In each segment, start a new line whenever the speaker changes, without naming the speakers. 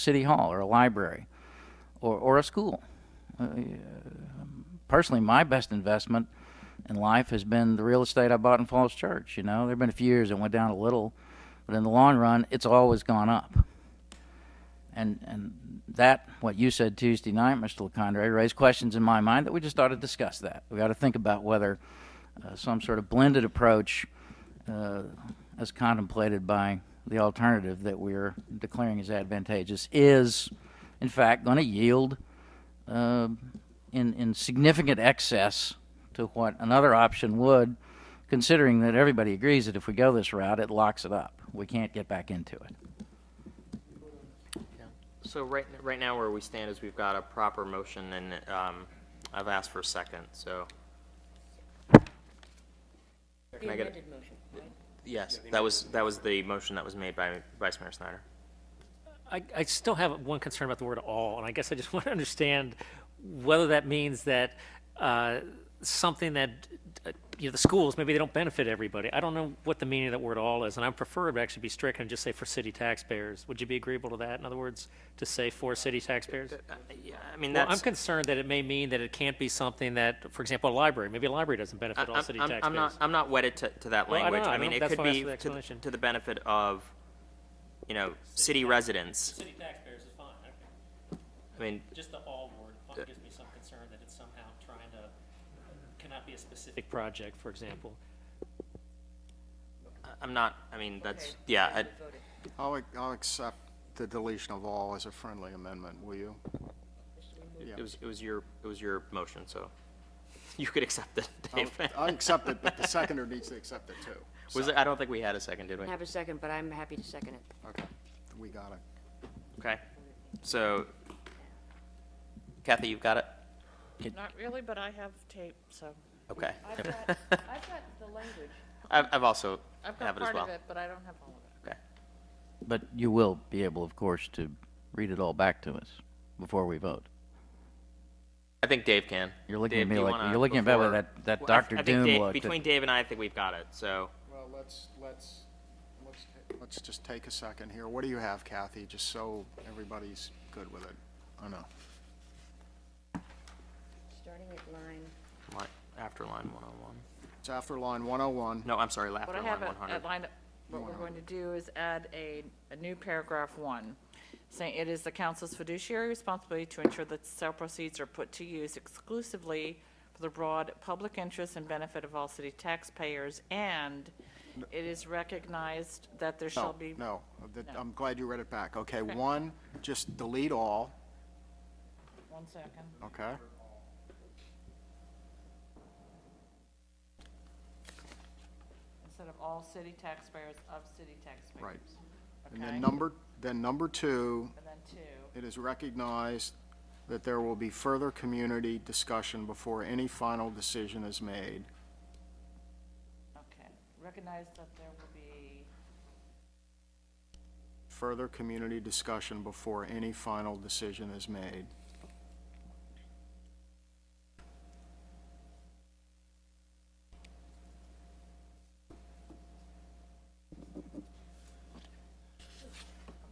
city hall or a library or, or a school. Uh, personally, my best investment in life has been the real estate I bought in Falls Church. You know, there have been a few years that went down a little, but in the long run, it's always gone up. And, and that, what you said Tuesday night, Mr. LeCondre, raised questions in my mind that we just ought to discuss that. We ought to think about whether uh, some sort of blended approach, uh, as contemplated by the alternative that we're declaring as advantageous, is in fact going to yield uh, in, in significant excess to what another option would, considering that everybody agrees that if we go this route, it locks it up. We can't get back into it.
So right, right now where we stand is we've got a proper motion and um, I've asked for a second, so.
The
Can I get it?
amended motion, right?
Yes, that was, that was the motion that was made by Vice Mayor Snyder.
I, I still have one concern about the word all, and I guess I just want to understand whether that means that uh, something that, uh, you know, the schools, maybe they don't benefit everybody. I don't know what the meaning of that word all is, and I prefer it actually be strict and just say for city taxpayers. Would you be agreeable to that? In other words, to say for city taxpayers?
Yeah, I mean,
Well, I'm
that's.
concerned that it may mean that it can't be something that, for example, a library, maybe a library doesn't
I-
benefit all
I'm,
city
I'm- I'm not,
taxpayers.
I'm not wedded to, to that
Well, I don't
language.
know,
I
I
mean,
don't-
it
that's
could
why I asked
be to,
for the
the-
explanation.
to the benefit of, you know, city residents.
City taxpayers is fine,
I mean,
just the all word
Uh,
gives me some concern that it's somehow trying to, cannot be a specific project, for example.
I- I'm not, I mean, that's, yeah, I-
We voted.
I'll, ac- I'll accept the deletion of all as a friendly amendment, will you? Yeah.
it was, it was your, it was your motion, so you could accept it,
I'll-
Dave.
I accept it, but the seconder needs to accept it too.
Was it, I don't think we had a second, did we?
I have a second, but I'm happy to second it.
Okay, we got it.
Okay, so Kathy, you've got it?
Not really, but I have tape, so.
Okay.
I've got, I've got the language.
I've, I've also
I've
have
got
it as
part
well.
of it, but I don't have all of
Okay,
But you will be able, of course, to read it all back to us before we vote.
I think Dave can.
You're looking
Dave,
at me
do you
like-
wanna-
you're looking at me like
before-
that- that
Well, I-
Dr.
I think
Doom
Dave-
looked at-
Between Dave and I, I think we've got it, so,
Well, let's, let's, let's, ta- let's just take a second here. What do you have, Kathy, just so everybody's good with it? I know.
Starting at line,
li- after line 101.
It's after line 101.
No, I'm sorry,
it. What
after
I
line
have at-
100.
at line, what we're going to do is add a, a new paragraph one, saying it is the council's fiduciary responsibility to ensure that sale proceeds are put to use exclusively for the broad public interest and benefit of all city taxpayers, and it is recognized that there shall
No,
be.
no, that- I'm glad you read it back. Okay, one, just delete all,
One second.
okay?
Instead of all city taxpayers, of city taxpayers.
Right. And
Okay,
then
and
number, then number two,
then two,
It is recognized that there will be further community discussion before any final decision is made.
okay. Recognize that there will be,
Further community discussion before any final decision is made.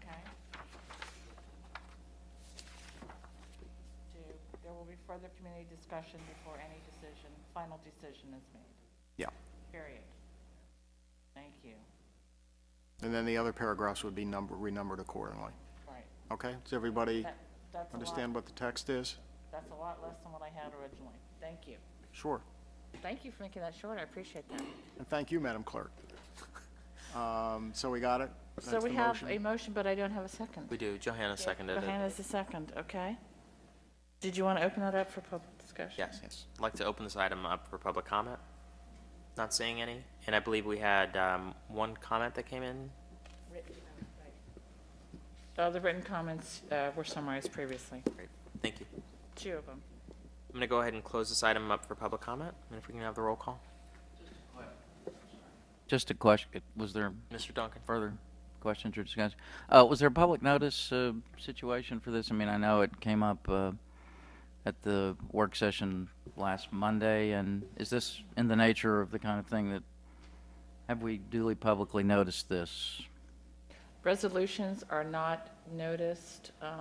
okay. Two, there will be further community discussion before any decision, final decision is made,
Yeah.
period. Thank you.
And then the other paragraphs would be number, renumbered accordingly.
Right.
Okay? Does everybody
That, that's a
understand
lot,
what the text is?
that's a lot less than what I had originally. Thank you.
Sure.
Thank you for making that short, I appreciate that.
And thank you, Madam Clerk. Um, So we got it?
So
That's
we
the
have
motion?
a motion, but I don't have a second.
We do, Johanna seconded it.
Johanna's the second, okay. Did you want to open that up for public discussion?
Yes. I'd like to open this item up for public comment. Not seeing any, and I believe we had um, one comment that came in.
Uh, The written comments uh, were summarized previously,
Great, thank you.
two of them.
I'm going to go ahead and close this item up for public comment, and if we can have the roll call.
Just a question, was there
Mr. Duncan?
further questions or discussion? Uh, was there a public notice uh, situation for this? I mean, I know it came up uh, at the work session last Monday, and is this in the nature of the kind of thing that, have we duly publicly noticed this?
Resolutions are not noticed, um,